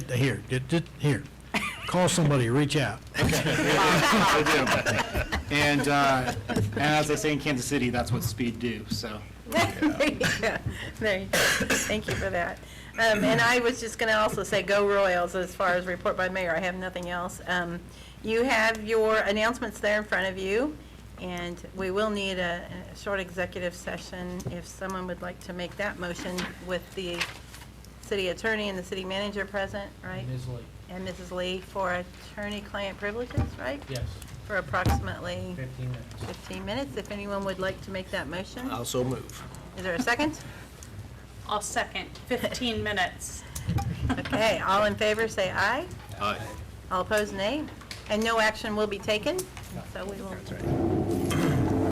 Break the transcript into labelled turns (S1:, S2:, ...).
S1: here, get, get- here. Call somebody, reach out.
S2: I do. And, uh, and as they say in Kansas City, that's what speed do, so.
S3: There you go. There you go. Thank you for that. Um, And I was just going to also say, go Royals, as far as report by mayor, I have nothing else. Um, You have your announcements there in front of you, and we will need a a short executive session if someone would like to make that motion with the city attorney and the city manager present, right?
S4: Ms. Lee,
S3: And Mrs. Lee for attorney-client privileges, right?
S4: yes,
S3: For approximately
S4: 15 minutes.
S3: 15 minutes, if anyone would like to make that motion.
S5: Also move.
S3: Is there a second?
S6: I'll second, 15 minutes.
S3: Okay, all in favor, say aye.
S5: Aye.
S3: All opposed, nay. And no action will be taken, so we will.